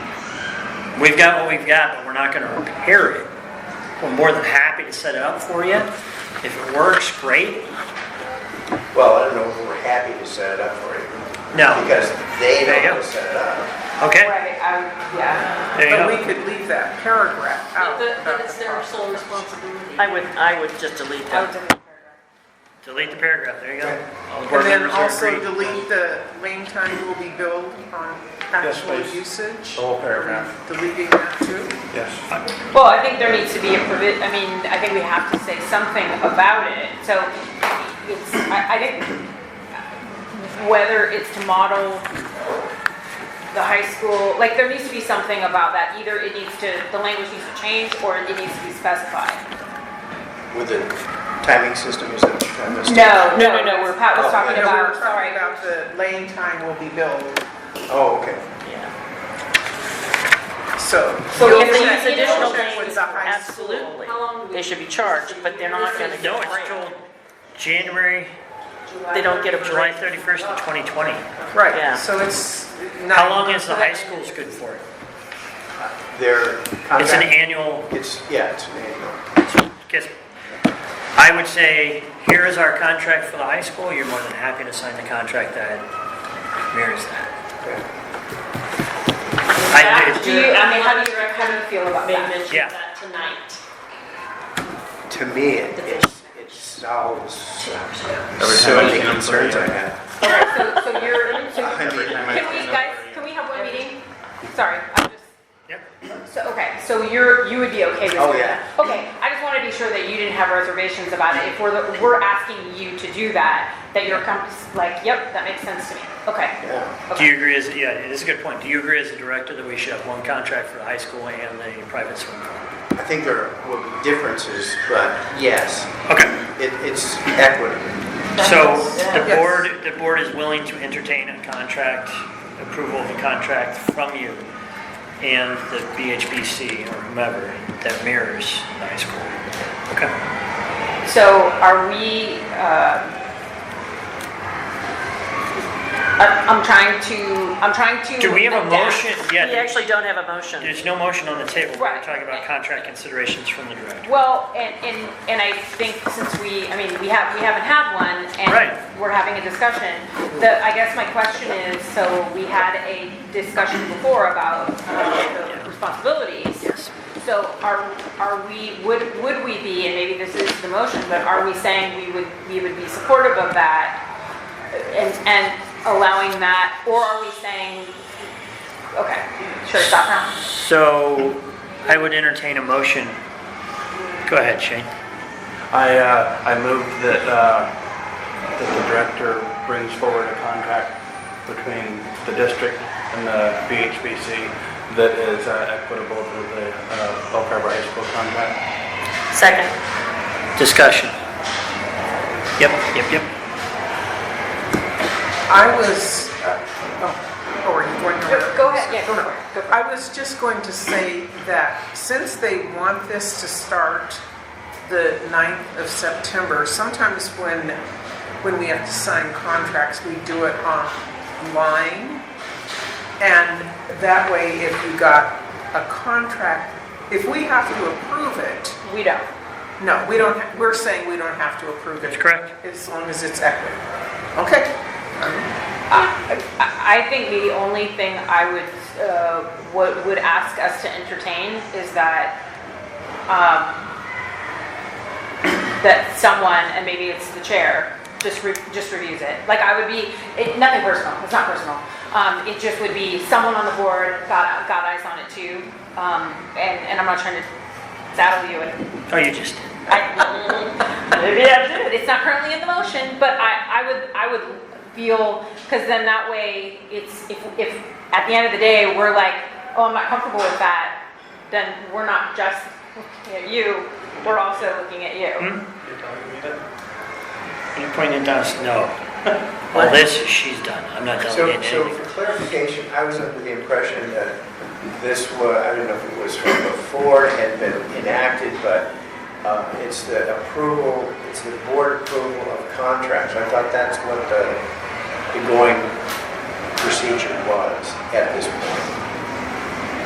We've got what we've got, but we're not gonna repair it. We're more than happy to set it up for you. If it works, great. Well, I don't know if we're happy to set it up for you, No, because they There you know how go. to set it up. okay, Right, I, yeah. there you But we go. could leave that paragraph out. That of that it's the their policy. sole responsibility. I would, I would just delete I would that. delete Delete the paragraph, there you go. All the board And then members are also agreed. delete the lane time will be billed on actual please. usage. The whole paragraph. Deleting that too. Yes. that. Well, I think there needs to be a provi, I mean, I think we have to say something about it, so it's, I, I think whether it's to model the high school, like, there needs to be something about that, either it needs to, the language needs to change, or it needs to be specified. With the timing system, is that what you're talking about? Steve? No, no, No, no, no, we're- Pat Oh, was talking No, we were about, talking sorry. about the lane time will be billed, Oh, okay. Yeah. so. So you'll if they check- use additional you'll check with the high school. Absolutely. How long do we- They should be charged, but they're not gonna get No, a it's break. till January, They don't get a July break. 31st of 2020. Yeah. Right, so it's not. How long is the high school's good for? Their It's an contract, annual, it's, yeah, it's an annual. guess, I would say, here is our contract for the high school, you're more than happy to sign the contract that mirrors that. Okay. I Do you, I mean, how do you, how do you feel about They that? Yeah. mentioned that tonight. To me, it It's- it solves uh, so time I many see them, concerns I yeah. have. Okay, so, so you're, so, I mean, can we, guys, can we have one meeting? Sorry, I'm just, Yep. so, okay, so you're, you would be okay with doing that? Oh, yeah. Okay, I just wanna be sure that you didn't have reservations about it, if we're, the- we're asking you to do that, that you're com- like, yep, that makes sense to me, okay. Yeah, Do you agree as, yeah, this is a good point. Do you agree as a director that we should have one contract for the high school and the private swim pool? I think there will be differences, but yes, Okay, it, it's equity. so the Yes. board, the board is willing to entertain a contract, approval of a contract from you and the BHBC or whomever that mirrors the high school. Okay. So are we, uh, I'm, I'm trying to, I'm trying to. Do we have a adapt. motion? We Yeah, actually don't have a motion. there's no motion on the table. We're Right. talking about contract considerations from the director. Well, and, and, and I think since we, I mean, we have, we haven't had one, Right. and we're having a discussion. The, I guess my question is, so we had a discussion before about uh, the responsibilities. So are, are we, would, would we be, and maybe this is the motion, but are we saying we would, we would be supportive of that? And, and allowing that, or are we saying, okay, sure, stop now. So I would entertain a motion. Go ahead, Shane. I, uh, I move that, uh, that the director brings forward a contract between the district and the BHBC that is uh, equitable to the, uh, Bell Harbor High School contract. Second. Discussion. Yep, yep, yep. I was, uh, oh, oh, are you going to? Go ahead, yeah, go for it. Go for it. I was just going to say that since they want this to start the 9th of September, sometimes when, when we have to sign contracts, we do it online. And that way, if you got a contract, if we have to approve it, We don't. no, we don't, ha- we're saying we don't have to approve it. That's correct. As long as it's equitable. Okay. I I think the only thing I would, uh, would would ask us to entertain is that, um, that someone, and maybe it's the chair, just, re- just reviews it. Like, I would be, it, nothing personal, it's not personal. Um, it just would be someone on the board got, got eyes on it too. Um, and, and I'm not trying to saddle you with Oh, you just, I- Maybe I should. It's not currently in the motion, but I, I would, I would feel, because then that way, it's, if, if, at the end of the day, we're like, oh, I'm not comfortable with that, then we're not just looking at you, we're also looking at you. you pointed down, no. Well, this, she's done. I'm not So, delegating so anything. for clarification, I was under the impression that this was, I don't know if it was from before, had been enacted, but uh, it's the approval, it's the board approval of contracts. I thought that's what the, the going procedure was at this point.